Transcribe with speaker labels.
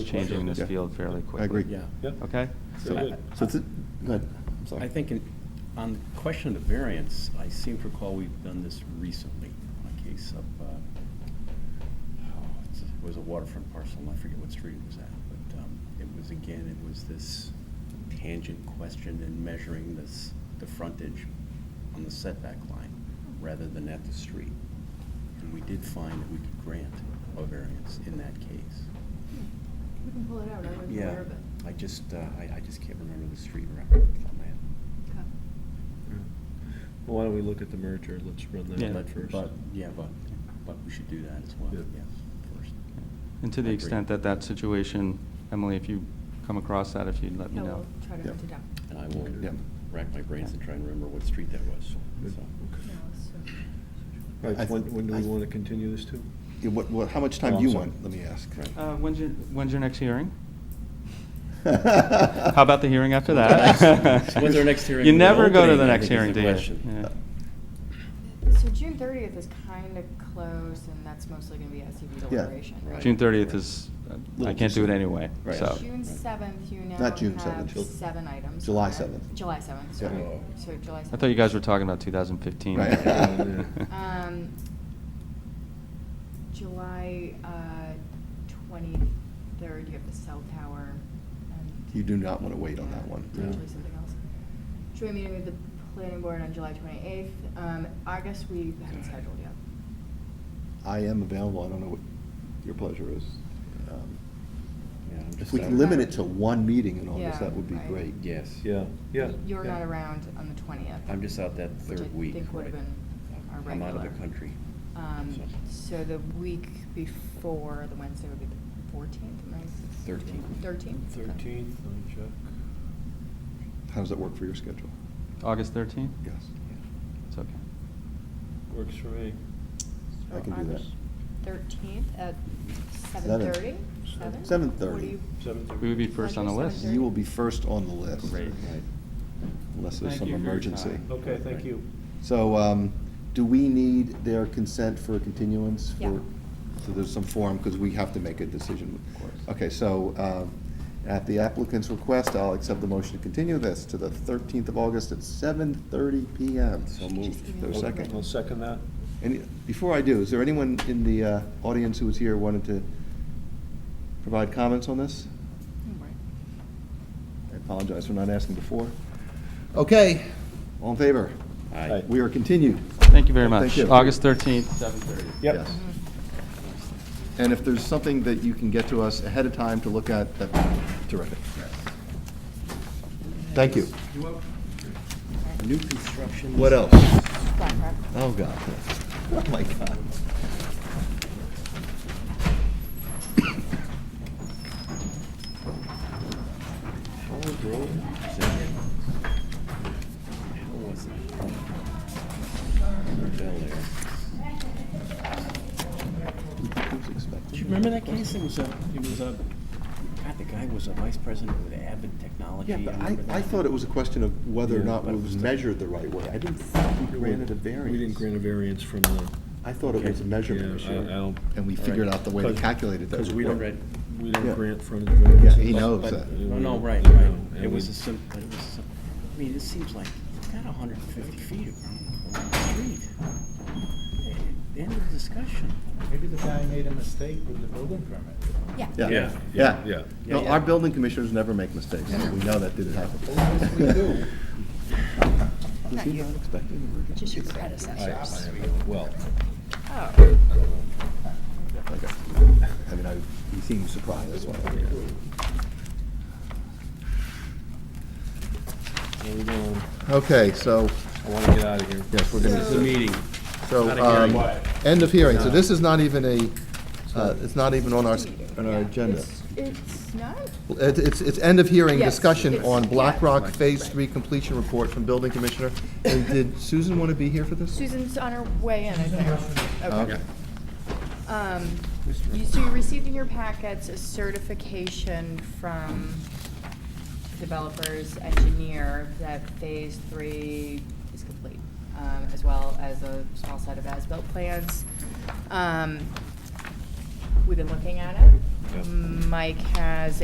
Speaker 1: changing this
Speaker 2: Yeah.
Speaker 1: field fairly quickly.
Speaker 2: agree.
Speaker 3: Yeah.
Speaker 4: Yep.
Speaker 1: Okay?
Speaker 4: Very
Speaker 3: So-
Speaker 4: good.
Speaker 2: So, it's a- go ahead, I'm sorry.
Speaker 3: I think in- on the question of the variance, I seem to recall we've done this recently on a case of, uh, oh, it's- it was a waterfront parcel, and I forget what street it was at, but um, it was, again, it was this tangent question in measuring this, the frontage on the setback line rather than at the street. And we did find that we could grant a variance in that case.
Speaker 5: We can pull it out, I wasn't
Speaker 3: Yeah,
Speaker 5: aware of it.
Speaker 3: I just, uh, I I just can't remember the street right off the top of my head.
Speaker 5: Okay.
Speaker 4: Well, why don't we look at the merger? Let's run
Speaker 1: Yeah.
Speaker 4: that one first.
Speaker 3: But, yeah, but, but we should do that as well,
Speaker 4: Yeah.
Speaker 3: yes, first.
Speaker 1: And to the
Speaker 3: Agree.
Speaker 1: extent that that situation, Emily, if you come across that, if you'd let me
Speaker 5: No,
Speaker 1: know.
Speaker 5: we'll try to
Speaker 2: Yeah.
Speaker 5: hunt it down.
Speaker 3: And I will
Speaker 2: Yeah.
Speaker 3: rack my brains and try and remember what street that was,
Speaker 4: Good.
Speaker 3: so.
Speaker 5: No, so-
Speaker 4: All
Speaker 2: I
Speaker 4: right, when,
Speaker 2: th-
Speaker 4: when do
Speaker 2: I
Speaker 4: we
Speaker 2: th-
Speaker 4: want to continue this to?
Speaker 2: Yeah, What, what, how much time
Speaker 3: Oh,
Speaker 2: do you
Speaker 3: I'm sorry.
Speaker 2: want, let me ask?
Speaker 1: Uh, When's your, when's your next hearing?
Speaker 2: How
Speaker 6: Uh,
Speaker 1: How about the hearing after that?
Speaker 3: When's our next hearing?
Speaker 1: You never go to
Speaker 3: Opening,
Speaker 1: the
Speaker 3: I
Speaker 1: next
Speaker 3: think, is
Speaker 1: hearing,
Speaker 3: the
Speaker 1: do you?
Speaker 3: question.
Speaker 2: Uh,
Speaker 1: Yeah.
Speaker 6: So June thirtieth is kind of close, and that's mostly gonna be SUV deliberation,
Speaker 3: Right.
Speaker 6: right?
Speaker 1: June 30th is, uh, I
Speaker 2: Little
Speaker 1: can't do
Speaker 2: too
Speaker 1: it
Speaker 2: soon.
Speaker 1: anyway,
Speaker 2: Right.
Speaker 1: so.
Speaker 6: June seventh, you now
Speaker 2: Not June 7th, Jul-
Speaker 6: have seven items.
Speaker 2: July
Speaker 6: on it.
Speaker 2: 7th.
Speaker 6: July seventh,
Speaker 2: Yeah.
Speaker 6: sorry.
Speaker 3: Oh.
Speaker 6: So July seventh.
Speaker 1: I thought you guys were talking about 2015.
Speaker 2: Right.
Speaker 1: Yeah.
Speaker 6: Um, July, uh, twenty-third, you have the cell tower and.
Speaker 2: You do not wanna wait on that one.
Speaker 6: Yeah, Potentially
Speaker 4: No.
Speaker 6: something else. Joint meeting with the planning board on July twenty-eighth. Um, August, we haven't scheduled yet.
Speaker 2: I am available, I don't know what your pleasure is. Um,
Speaker 3: Yeah, I'm
Speaker 2: If
Speaker 3: just
Speaker 2: we
Speaker 3: out.
Speaker 2: can limit it to one meeting in August,
Speaker 6: Yeah,
Speaker 2: that would be
Speaker 6: right.
Speaker 2: great.
Speaker 3: Yes.
Speaker 4: Yeah, yeah.
Speaker 6: You're
Speaker 4: yeah.
Speaker 6: not around on the twentieth.
Speaker 3: I'm just out that third week.
Speaker 6: Which I think would have
Speaker 3: right.
Speaker 6: been our regular.
Speaker 3: I'm out of the country.
Speaker 6: Um,
Speaker 3: so.
Speaker 6: so the week before, the Wednesday would be the fourteenth, am I?
Speaker 3: Thirteenth.
Speaker 6: Thirteenth?
Speaker 4: Thirteenth, let me check.
Speaker 2: How does that work for your schedule?
Speaker 1: August 13th?
Speaker 2: Yes.
Speaker 1: It's okay.
Speaker 4: Works for me.
Speaker 2: I can do that.
Speaker 6: Thirteenth at seven
Speaker 2: Seven.
Speaker 6: thirty? Seven?
Speaker 2: Seven
Speaker 6: What do
Speaker 2: thirty.
Speaker 6: you-
Speaker 4: Seven thirty.
Speaker 1: We would be first on the list.
Speaker 6: Seven
Speaker 2: You will be first on the list.
Speaker 1: Great.
Speaker 3: Right.
Speaker 2: Unless there's
Speaker 1: Thank
Speaker 2: some
Speaker 1: you for your
Speaker 2: emergency.
Speaker 1: time.
Speaker 4: Okay, thank you.
Speaker 2: So, um, do we need their consent for a continuance? for-
Speaker 6: Yeah.
Speaker 2: So there's some form, because we have to make a decision.
Speaker 1: Of course.
Speaker 2: Okay, so, um, at the applicant's request, I'll accept the motion to continue this to the thirteenth of August at seven thirty PM.
Speaker 3: So moved.
Speaker 2: Is there a second?
Speaker 4: I'll second that.
Speaker 2: And before I do, is there anyone in the, uh, audience who was here wanted to provide comments on this?
Speaker 6: Mm,
Speaker 2: I apologize for not asking before. Okay, all in favor?
Speaker 3: Aye.
Speaker 2: We are continued.
Speaker 1: Thank you very
Speaker 2: Thank
Speaker 1: much.
Speaker 2: you.
Speaker 1: August 13th, 7:30.
Speaker 4: Yep.
Speaker 2: Yes.
Speaker 6: Mm.
Speaker 2: And if there's something that you can get to us ahead of time to look at, that'd be terrific. Thank you.
Speaker 3: New construction.
Speaker 2: What else?
Speaker 6: Flat rock.
Speaker 2: Oh, God. Oh, my God.
Speaker 3: Howard Road, is that it? How was it? Bel Air.
Speaker 2: Who's
Speaker 3: Do you
Speaker 2: expecting?
Speaker 3: remember that case? It was a, it was a, God, the guy was a vice president with Avid Technology.
Speaker 2: Yeah, but I,
Speaker 3: remember
Speaker 2: I
Speaker 3: that.
Speaker 2: thought it was a question of whether or
Speaker 4: Yeah,
Speaker 2: not
Speaker 4: but
Speaker 2: it
Speaker 4: it
Speaker 2: was
Speaker 4: was-
Speaker 2: measured the right way. I didn't think we granted a variance.
Speaker 4: We didn't grant a variance from the.
Speaker 2: I thought it was a measurement
Speaker 4: Yeah, I- I
Speaker 2: issue.
Speaker 4: don't-
Speaker 2: And we
Speaker 4: all
Speaker 2: figured
Speaker 4: right.
Speaker 2: out the way to
Speaker 4: 'Cause-
Speaker 2: calculate it. that
Speaker 4: Because
Speaker 2: was
Speaker 4: we don't,
Speaker 2: right.
Speaker 4: we don't
Speaker 2: Yeah.
Speaker 4: grant frontage variances.
Speaker 2: Yeah, he knows
Speaker 4: But-
Speaker 2: that.
Speaker 3: Oh, No, no, right,
Speaker 4: you know,
Speaker 3: right.
Speaker 4: and
Speaker 3: It was
Speaker 4: we-
Speaker 3: a sim, but it was, a sim- I mean, it seems like it's got hundred and fifty feet around around the street. Eh, End of discussion.
Speaker 7: Maybe the guy made a mistake with the building permit.
Speaker 5: Yeah.
Speaker 2: Yeah,
Speaker 4: Yeah,
Speaker 2: yeah.
Speaker 4: yeah, yeah.
Speaker 2: No,
Speaker 3: Yeah,
Speaker 2: our
Speaker 3: yeah.
Speaker 2: building commissioners never make mistakes. We know that didn't happen.
Speaker 7: yes, we do.
Speaker 2: Was he not expecting a variance?
Speaker 5: Just your predecessor.
Speaker 4: Well,
Speaker 6: Oh,
Speaker 2: Okay. I mean, I, he seemed surprised, that's why.
Speaker 4: where we going?
Speaker 2: Okay, so,
Speaker 4: I want to get out of here.
Speaker 2: yes, we're
Speaker 4: It's a
Speaker 2: gonna,
Speaker 4: meeting.
Speaker 2: so,
Speaker 4: Not a
Speaker 2: um,
Speaker 4: hearing.
Speaker 2: end of hearing, so this is not even a, uh, it's not even on our, s- on our
Speaker 6: yeah.
Speaker 2: agenda.
Speaker 6: It's- It's not?
Speaker 2: Well, it- It's, it's end of hearing
Speaker 6: Yes,
Speaker 2: discussion
Speaker 6: it's-
Speaker 2: on Black
Speaker 6: yeah.
Speaker 2: Rock Phase Three completion report from building commissioner. And did Susan want to be here for this?
Speaker 6: Susan's on her way in, I think.
Speaker 2: Okay.
Speaker 6: Um, you- So you received in your packets a certification from developers, engineer, that phase three is complete, um, as well as a small set of as-built plans. Um, We've been looking at it.
Speaker 4: Yeah.
Speaker 6: Mike has